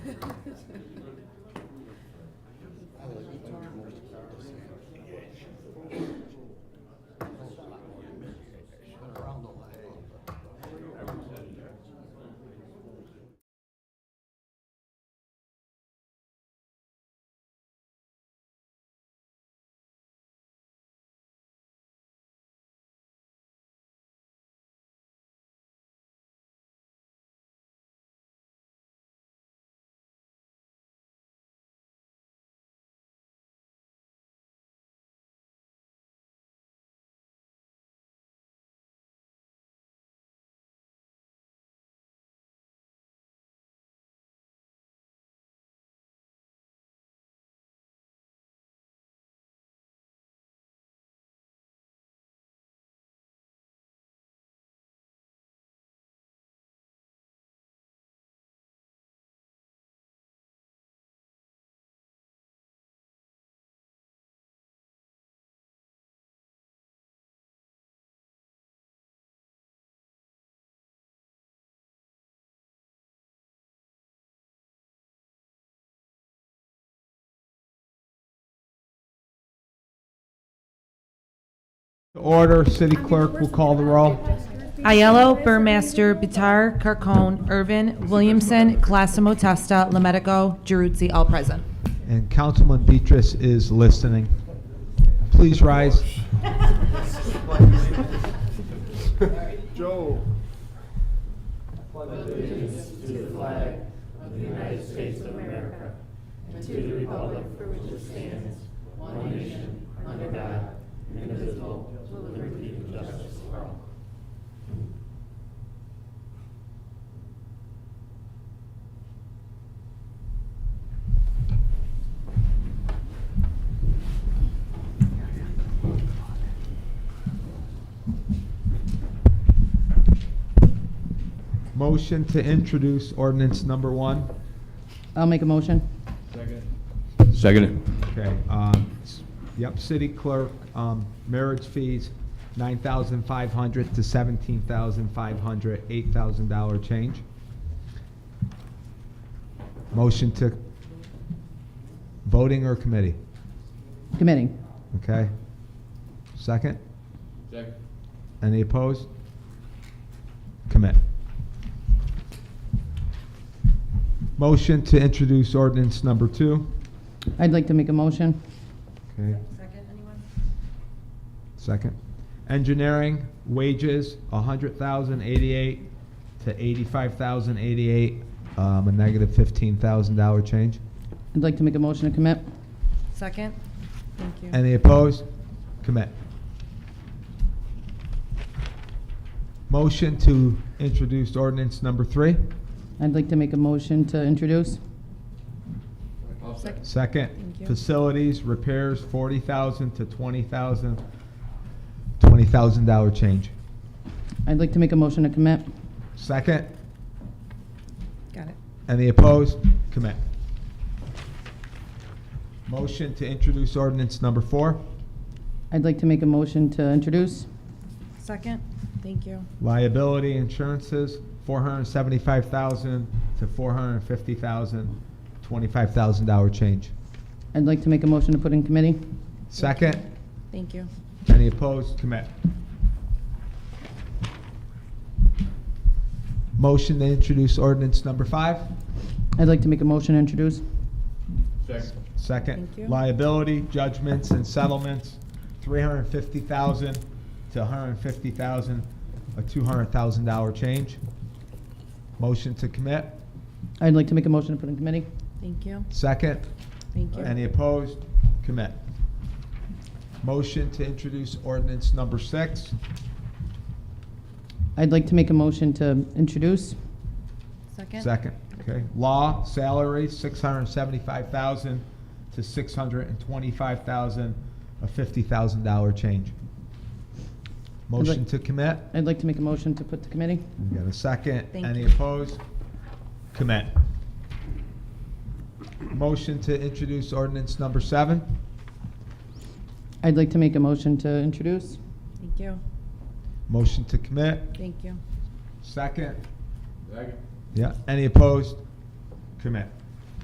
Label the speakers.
Speaker 1: To Order, city clerk will call the roll.
Speaker 2: Aiello, Burmaster, Bitar, Carcone, Irvin, Williamson, Classimo Testa, Lemetico, Giruzzi, all present.
Speaker 1: And Councilman Beatrice is listening. Please rise.
Speaker 3: Joe.
Speaker 1: Motion to introduce ordinance number one.
Speaker 4: I'll make a motion.
Speaker 5: Second.
Speaker 1: Okay, um, s- yep, city clerk, um, marriage fees, nine thousand five hundred to seventeen thousand five hundred, eight thousand dollar change. Motion to voting or committee,
Speaker 4: Committee.
Speaker 1: okay? Second?
Speaker 5: Second.
Speaker 1: Any opposed? Commit. Motion to introduce ordinance number two.
Speaker 4: I'd like to make a motion.
Speaker 1: Okay, second. Engineering wages, a hundred thousand eighty-eight to eighty-five thousand eighty-eight, um, a negative fifteen thousand dollar change.
Speaker 4: I'd like to make a motion to commit.
Speaker 2: Second? Thank you.
Speaker 1: Any opposed? Commit. Motion to introduce ordinance number three.
Speaker 4: I'd like to make a motion to introduce.
Speaker 2: Second.
Speaker 1: Second,
Speaker 2: Thank you.
Speaker 1: facilities, repairs, forty thousand to twenty thousand, twenty thousand dollar change.
Speaker 4: I'd like to make a motion to commit.
Speaker 1: Second,
Speaker 2: Got it.
Speaker 1: any opposed? Commit. Motion to introduce ordinance number four.
Speaker 4: I'd like to make a motion to introduce.
Speaker 2: Second? Thank you.
Speaker 1: Liability insurances, four hundred and seventy-five thousand to four hundred and fifty thousand, twenty-five thousand dollar change.
Speaker 4: I'd like to make a motion to put in committee.
Speaker 1: Second,
Speaker 2: Thank you.
Speaker 1: Any opposed? Commit. Motion to introduce ordinance number five.
Speaker 4: I'd like to make a motion to introduce.
Speaker 5: Second.
Speaker 1: Second.
Speaker 2: Thank you.
Speaker 1: Liability, judgments, and settlements, three hundred and fifty thousand to hundred and fifty thousand, a two hundred thousand dollar change. Motion to commit.
Speaker 4: I'd like to make a motion to put in committee.
Speaker 2: Thank you.
Speaker 1: Second.
Speaker 2: Thank you.
Speaker 1: Any opposed? Commit. Motion to introduce ordinance number six.
Speaker 4: I'd like to make a motion to introduce.
Speaker 2: Second?
Speaker 1: Second, okay. Law, salary, six hundred and seventy-five thousand to six hundred and twenty-five thousand, a fifty thousand dollar change. Motion to commit?
Speaker 4: I'd like to make a motion to put to committee.
Speaker 1: We got a second.
Speaker 2: Thank
Speaker 1: Any
Speaker 2: you.
Speaker 1: opposed? Commit. Motion to introduce ordinance number seven?
Speaker 4: I'd like to make a motion to introduce.
Speaker 2: Thank you.
Speaker 1: Motion to commit?
Speaker 2: Thank you.
Speaker 1: Second? Yeah, any opposed? Commit.